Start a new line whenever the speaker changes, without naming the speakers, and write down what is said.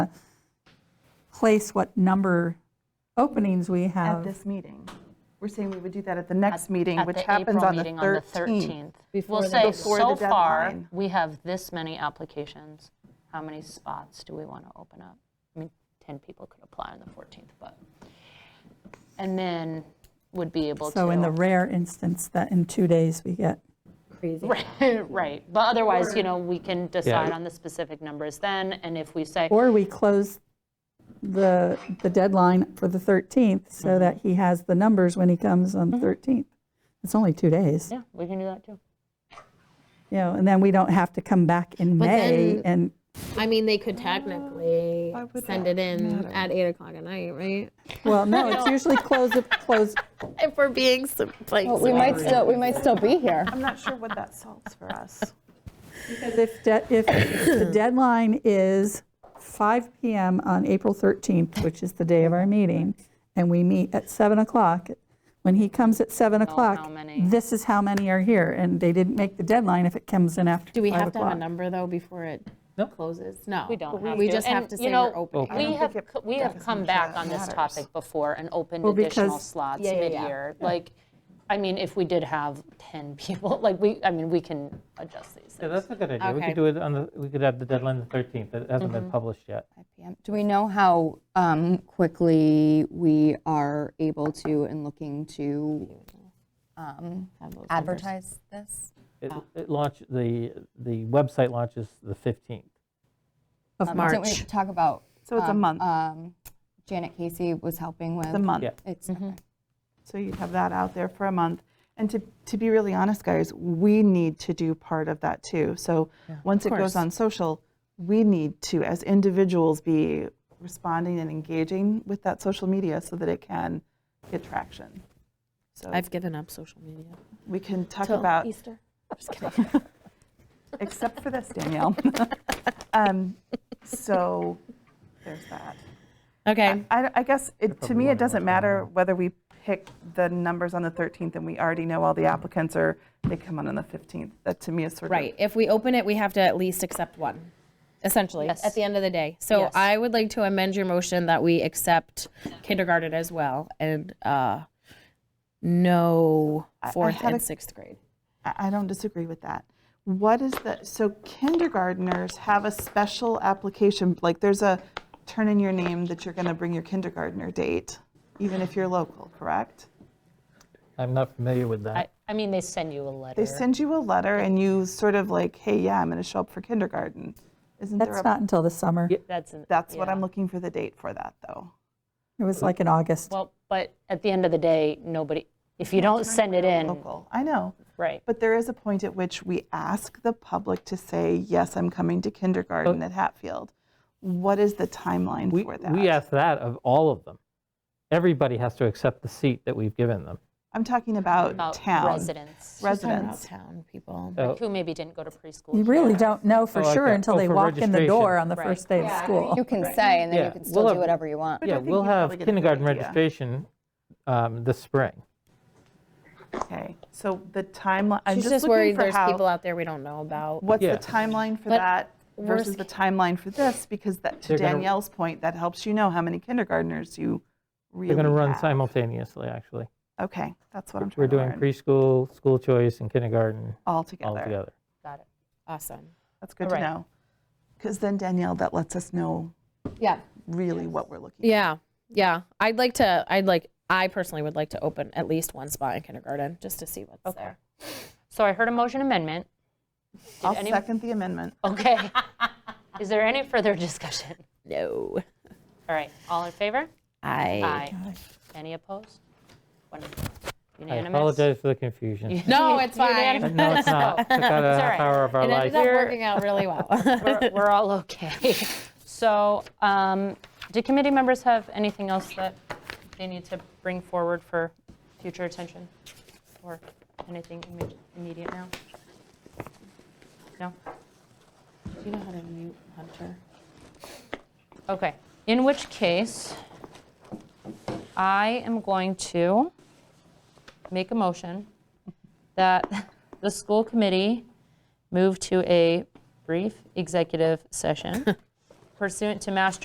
place what number openings we
at
have.
this meeting. We're saying we would do that at the next meeting,
at
which
the
happens
April
on the
meeting on the
13th.
13th.
Before the-
We'll say,
Before the
so far,
deadline.
we have this many applications. How many spots do we want to open up? I mean, 10 people could apply on the 14th, but, and then would be able to.
So in the rare instance that in two days we get,
Crazy.
Right, but otherwise, you know, we can decide on the specific numbers then, and if we say,
or we close the, the deadline for the 13th so that he has the numbers when he comes on the 13th. It's only two days,
yeah, we can do that too.
you know, and then we don't have to come back in
But
May
then-
and,
I mean, they could
Uh,
technically send it in at eight o'clock at night, right?
well, no, it's usually close, of- close,
If we're being some, like,
But we might still, we might still be here.
I'm not sure what that solves for us.
Because if, de- if the deadline is 5 PM on April 13th, which is the day of our meeting, and we meet at 7 o'clock, when he comes at 7 o'clock,
many.
this is how many are here, and they didn't make the deadline if it comes in after 5
Do we have to have a
o'clock.
number, though, before it closes? No.
We don't have to.
We just
And,
have to
you
say
know,
we're opening.
We have,
think
co-
it
we have
does
come
much
back
that
on this
matters.
topic before and opened
Well,
additional
because-
slots
yeah, yeah.
mid-year. Like, I mean, if we did have 10 people, like, we, I mean, we can adjust these
Yeah,
things.
that's a good idea. We
Okay.
could do it on the, we could have the deadline the 13th. It hasn't
Mm-hmm.
been published yet.
Yeah. Do we know how um, quickly we are able to and looking to um, advertise this?
It
Oh.
it launch, the, the website launches the 15th.
Of
Um,
March.
Didn't we talk about?
So it's a
um,
month.
um, Janet Casey was helping with.
It's a month. Mm-hmm.
Yeah.
It's,
So you'd have that out there for a month. And to, to be really honest, guys, we need to do part of that too. So once it goes
course.
on social, we need to, as individuals, be responding and engaging with that social media so that it can get traction. So
I've given up social media.
we can talk about Easter. Except for this, Danielle. um, so there's that.
Okay,
I, I guess, it, to me, it
wondering what's
doesn't
going
matter whether we pick the numbers on the 13th and we already know all the applicants or they come on on the 15th. That to me is sort
right. If we open it, we have to at least accept one, essentially, at the end of the day. So
Yes.
I would like to amend your motion that we accept kindergarten as well and uh, no
I
fourth
had
and
a-
sixth grade.
of, I, I don't disagree with that. What is the, so kindergarteners have a special application, like there's a turn in your name that you're going to bring your kindergartner date, even if you're local, correct?
I'm not familiar with
I,
that.
I mean, they send you a letter.
They send you a letter and you sort of like, hey, yeah, I'm going to show up for kindergarten. Isn't there
That's
a,
not until the summer.
That's, an-
that's what
yeah.
I'm looking for the date for that though.
It was like in August.
Well, but at the end of the day, nobody, if you don't send it in,
Local. I know.
right.
But there is a point at which we ask the public to say, yes, I'm coming to kindergarten at Hatfield. What is the timeline
We,
for that?
we ask that of all of them. Everybody has to accept the seat that we've given them.
I'm talking about,
About
town
residents,
residents.
Town people.
Oh,
who maybe didn't go to preschool.
You really don't know for
Oh, like
sure
that.
until
Oh,
they
for
walk in the door
registration.
on the
Right.
first day of school.
you can say, and then
Yeah,
you can
we'll
still
have-
do whatever you want.
I
Yeah,
think
we'll
you
have
probably get a good
kindergarten
idea.
registration um, this spring.
Okay, so the timeline, I'm
She's
just,
just
looking
worried
for
there's
how,
people out there we don't know about.
what's
Yeah.
the timeline for
But
that versus
worst
the timeline for this? Because that, to
They're gonna-
Danielle's point, that helps you know how many kindergarteners you really
They're going to run
have.
simultaneously, actually.
Okay, that's what I'm trying
We're
to
doing
learn.
preschool, school choice, and kindergarten
all
all together.
Got it.
Awesome.
That's good
Right.
to know. Because then, Danielle, that lets us know
Yeah.
really what we're looking
Yeah, yeah. I'd like to, I'd like, I personally would like to open at least one spot in kindergarten, just to see what's there.
So I heard a motion amendment.
at. I'll
any-
second the amendment.
Okay. Is there any further discussion?
No.
All right, all in favor?
I.
Aye. Any opposed? Wonderful.
I
Unanimous?
apologize for the confusion.
No, it's fine. It
No, it's not. Took out a
all
half
right.
hour of our life.
ended up working out really well.
We're we're all okay. So um, do committee members have anything else that they need to bring forward for future attention? Or anything imme- immediate now? No?
Do you know how to mute Hunter?
Okay, in which case, I am going to make a motion that the school committee move to a brief executive session pursuant to Mass